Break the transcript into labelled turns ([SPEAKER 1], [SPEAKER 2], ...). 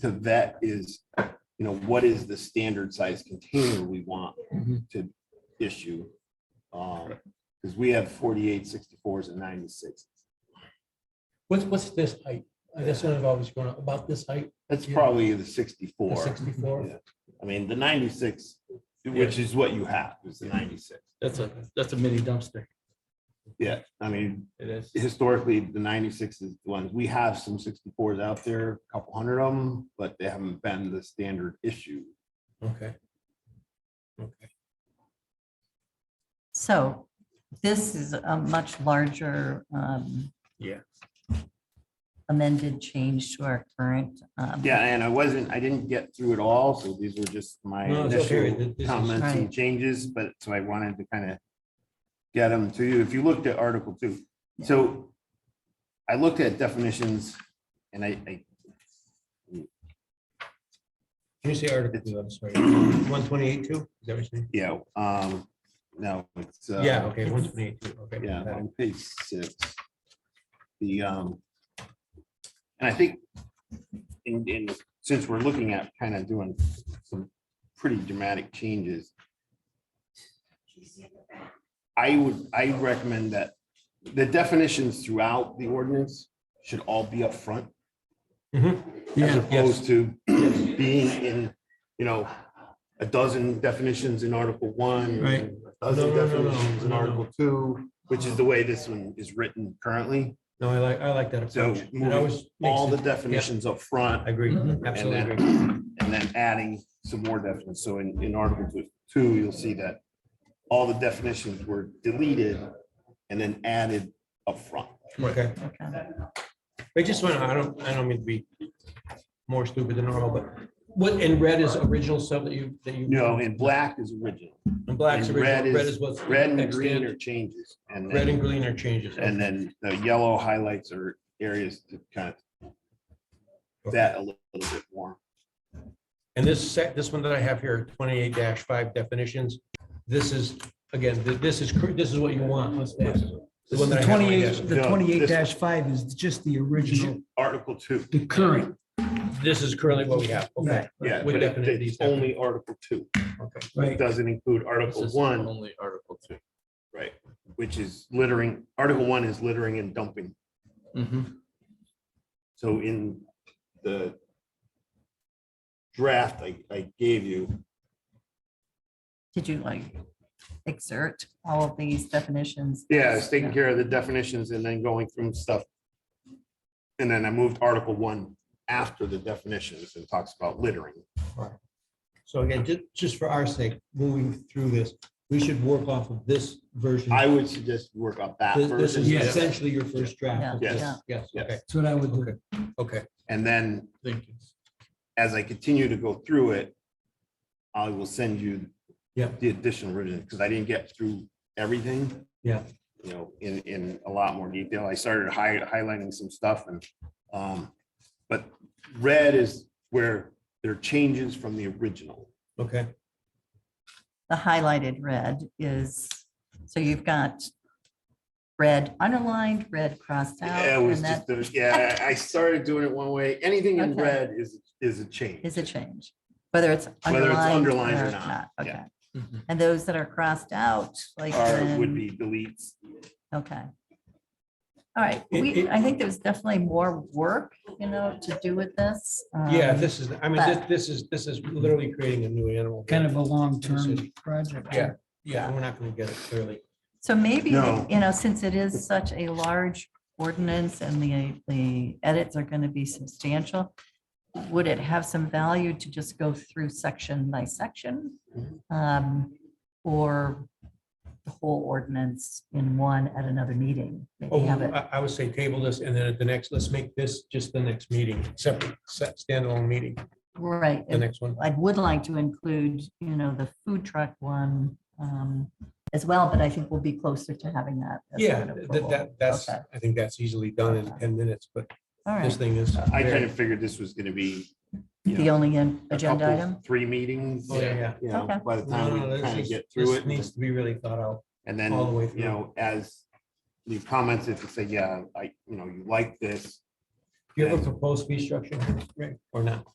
[SPEAKER 1] to vet is, you know, what is the standard size container we want
[SPEAKER 2] Mhm.
[SPEAKER 1] to issue? Um, because we have 48, 64s, and ninety-six.
[SPEAKER 2] What's, what's this height? Uh, That's what I've always grown up, about this height,
[SPEAKER 1] That's
[SPEAKER 2] Yeah.
[SPEAKER 1] probably the
[SPEAKER 2] the
[SPEAKER 1] sixty-four.
[SPEAKER 2] sixty-four.
[SPEAKER 1] Yeah. I mean, the ninety-six, which is what you have, is the ninety-six.
[SPEAKER 3] That's a, that's a mini dumpster.
[SPEAKER 1] Yeah, I mean,
[SPEAKER 3] It is.
[SPEAKER 1] historically, the ninety-six is the ones, we have some sixty-fours out there, a couple hundred of them, but they haven't been the standard issue.
[SPEAKER 2] Okay. Okay.
[SPEAKER 4] So this is a much larger. um,
[SPEAKER 3] Yeah.
[SPEAKER 4] Amended change to our current. um,
[SPEAKER 1] Yeah, and I wasn't, I didn't get through it all, so these were just my
[SPEAKER 2] No, it's okay. Th-
[SPEAKER 1] initial
[SPEAKER 2] this is-
[SPEAKER 1] comments
[SPEAKER 4] Right.
[SPEAKER 1] and changes, but so I wanted to kind of get them to you. If you looked at Article Two, so I looked at definitions and I, I
[SPEAKER 2] Can you say article two? I'm sorry. One twenty-eight two? Is that what you're saying?
[SPEAKER 1] Yeah, um, no, it's. uh,
[SPEAKER 2] Yeah, okay, one twenty-eight two, okay.
[SPEAKER 1] Yeah, on page six. The, um, and I think in, in, since we're looking at kind of doing some pretty dramatic changes. I would, I recommend that the definitions throughout the ordinance should all be up front
[SPEAKER 2] Mm-hmm.
[SPEAKER 1] as opposed to being in, you know, a dozen definitions in Article One.
[SPEAKER 3] Right.
[SPEAKER 1] A dozen
[SPEAKER 2] No, no, no, no,
[SPEAKER 1] definitions in
[SPEAKER 2] no, no.
[SPEAKER 1] Article Two, which is the way this one is written currently.
[SPEAKER 2] No, I like, I like that
[SPEAKER 1] So
[SPEAKER 2] approach. It
[SPEAKER 1] moving
[SPEAKER 2] always makes
[SPEAKER 1] All the
[SPEAKER 2] sense.
[SPEAKER 1] definitions up front
[SPEAKER 2] I agree,
[SPEAKER 3] Mhm.
[SPEAKER 2] absolutely
[SPEAKER 1] And
[SPEAKER 2] agree.
[SPEAKER 1] and then adding some more definitions. So in, in Article Two- Two, you'll see that all the definitions were deleted and then added up front.
[SPEAKER 2] Okay,
[SPEAKER 4] okay.
[SPEAKER 2] I just want to, I don't, I don't mean to be more stupid than normal, but what, in red is original stuff that you, that you.
[SPEAKER 1] You know, and black is original.
[SPEAKER 2] And black's
[SPEAKER 1] and red
[SPEAKER 2] original, red
[SPEAKER 1] is-
[SPEAKER 2] is what's.
[SPEAKER 1] Red and
[SPEAKER 2] extant.
[SPEAKER 1] green are changes. and then-
[SPEAKER 2] Red and green are changes.
[SPEAKER 1] And then the yellow highlights are areas to kind of that a little bit more.
[SPEAKER 2] And this set, this one that I have here, twenty-eight five definitions, this is, again, th- this is, cr- this is what you want. Let's say. The one that I have on my desk.
[SPEAKER 5] Twenty-eight, the
[SPEAKER 1] No,
[SPEAKER 5] twenty-eight
[SPEAKER 1] this-
[SPEAKER 5] five is just the original,
[SPEAKER 1] Article two.
[SPEAKER 5] the current,
[SPEAKER 2] This is currently what we have. Okay.
[SPEAKER 1] Yeah,
[SPEAKER 2] With
[SPEAKER 1] but it-
[SPEAKER 2] definition, these
[SPEAKER 1] it's only Article two.
[SPEAKER 2] definitions.
[SPEAKER 1] It
[SPEAKER 5] right?
[SPEAKER 1] doesn't include
[SPEAKER 3] This
[SPEAKER 1] Article
[SPEAKER 3] is
[SPEAKER 1] one,
[SPEAKER 3] Only Article two.
[SPEAKER 1] right, which is littering. Article one is littering and dumping.
[SPEAKER 3] Mhm.
[SPEAKER 1] So in the draft I, I gave you,
[SPEAKER 4] Did you like exert all of these definitions?
[SPEAKER 1] yeah, it's taking care of the definitions and then going through stuff. And then I moved Article one after the definitions and talks about littering.
[SPEAKER 2] So again, ju- just for our sake, moving through this, we should work off of this version.
[SPEAKER 1] I would suggest you work on that
[SPEAKER 2] This this
[SPEAKER 1] version.
[SPEAKER 2] is
[SPEAKER 5] Yes.
[SPEAKER 2] essentially your first draft. of
[SPEAKER 1] Yeah.
[SPEAKER 2] this.
[SPEAKER 4] Yes.
[SPEAKER 2] Yes,
[SPEAKER 1] Yes.
[SPEAKER 2] okay,
[SPEAKER 5] That's what I would do.
[SPEAKER 2] okay, okay.
[SPEAKER 1] And then
[SPEAKER 3] Thank you.
[SPEAKER 1] as I continue to go through it, I will send you
[SPEAKER 2] Yeah.
[SPEAKER 1] the additional version, because I didn't get through everything.
[SPEAKER 2] Yeah.
[SPEAKER 1] You know, in, in a lot more detail. I started hi- highlighting some stuff and, um, but red is where there are changes from the original.
[SPEAKER 2] Okay,
[SPEAKER 4] The highlighted red is, so you've got red underlined, red crossed out.
[SPEAKER 1] Yeah, it was
[SPEAKER 4] Oh, and
[SPEAKER 1] just, the-
[SPEAKER 4] that
[SPEAKER 1] yeah, I I started doing it one way. Anything in
[SPEAKER 4] Okay.
[SPEAKER 1] red is, is a change.
[SPEAKER 4] Is a change, whether it's
[SPEAKER 1] Whether it's
[SPEAKER 4] underlined or
[SPEAKER 1] underlined or not,
[SPEAKER 4] not. Okay.
[SPEAKER 1] yeah.
[SPEAKER 3] Mhm.
[SPEAKER 4] And those that are crossed out, like.
[SPEAKER 1] Or would
[SPEAKER 4] in-
[SPEAKER 1] be deletes.
[SPEAKER 4] Okay. All right,
[SPEAKER 2] It-
[SPEAKER 4] we,
[SPEAKER 2] it-
[SPEAKER 4] I think there's definitely more work, you know, to do with this.
[SPEAKER 2] yeah,
[SPEAKER 4] um,
[SPEAKER 2] this is, I mean, this, this is, this is literally creating a new animal.
[SPEAKER 5] Kind of a long-term project.
[SPEAKER 2] Yeah, yeah, we're not gonna get it clearly.
[SPEAKER 4] So maybe,
[SPEAKER 1] No.
[SPEAKER 4] you know, since it is such a large ordinance and the, the edits are going to be substantial, would it have some value to just go through section by section? Um, Or the whole ordinance in one at another meeting? Maybe
[SPEAKER 2] Oh,
[SPEAKER 4] have it-
[SPEAKER 2] I, I would say table this and then at the next, let's make this just the next meeting, separate, se- standalone meeting,
[SPEAKER 4] Right.
[SPEAKER 2] the next one.
[SPEAKER 4] I would like to include, you know, the food truck one um, as well, but I think we'll be closer to having that. as
[SPEAKER 2] Yeah,
[SPEAKER 4] an
[SPEAKER 2] that,
[SPEAKER 4] approval.
[SPEAKER 2] that, that's,
[SPEAKER 4] Okay.
[SPEAKER 2] I think that's easily done in ten minutes, but
[SPEAKER 4] All
[SPEAKER 2] this
[SPEAKER 4] right,
[SPEAKER 2] thing is.
[SPEAKER 1] I kind
[SPEAKER 2] very-
[SPEAKER 1] of figured this was gonna be. you know,
[SPEAKER 4] the only in-
[SPEAKER 1] a
[SPEAKER 4] agenda
[SPEAKER 1] couple,
[SPEAKER 4] item.
[SPEAKER 1] Three meetings.
[SPEAKER 2] Oh, yeah, yeah.
[SPEAKER 1] You know,
[SPEAKER 4] Okay.
[SPEAKER 1] by the
[SPEAKER 2] No, no,
[SPEAKER 1] time we
[SPEAKER 2] this
[SPEAKER 1] kind of
[SPEAKER 2] is-
[SPEAKER 1] get through
[SPEAKER 2] this
[SPEAKER 1] it,
[SPEAKER 2] Needs to be really thought out.
[SPEAKER 1] and then,
[SPEAKER 2] all the way
[SPEAKER 1] you know,
[SPEAKER 2] through.
[SPEAKER 1] as the comments, if you say, yeah, I, you know, you like this,
[SPEAKER 2] Do you have a
[SPEAKER 1] Yeah.
[SPEAKER 2] proposed fee structure, Rick, or not?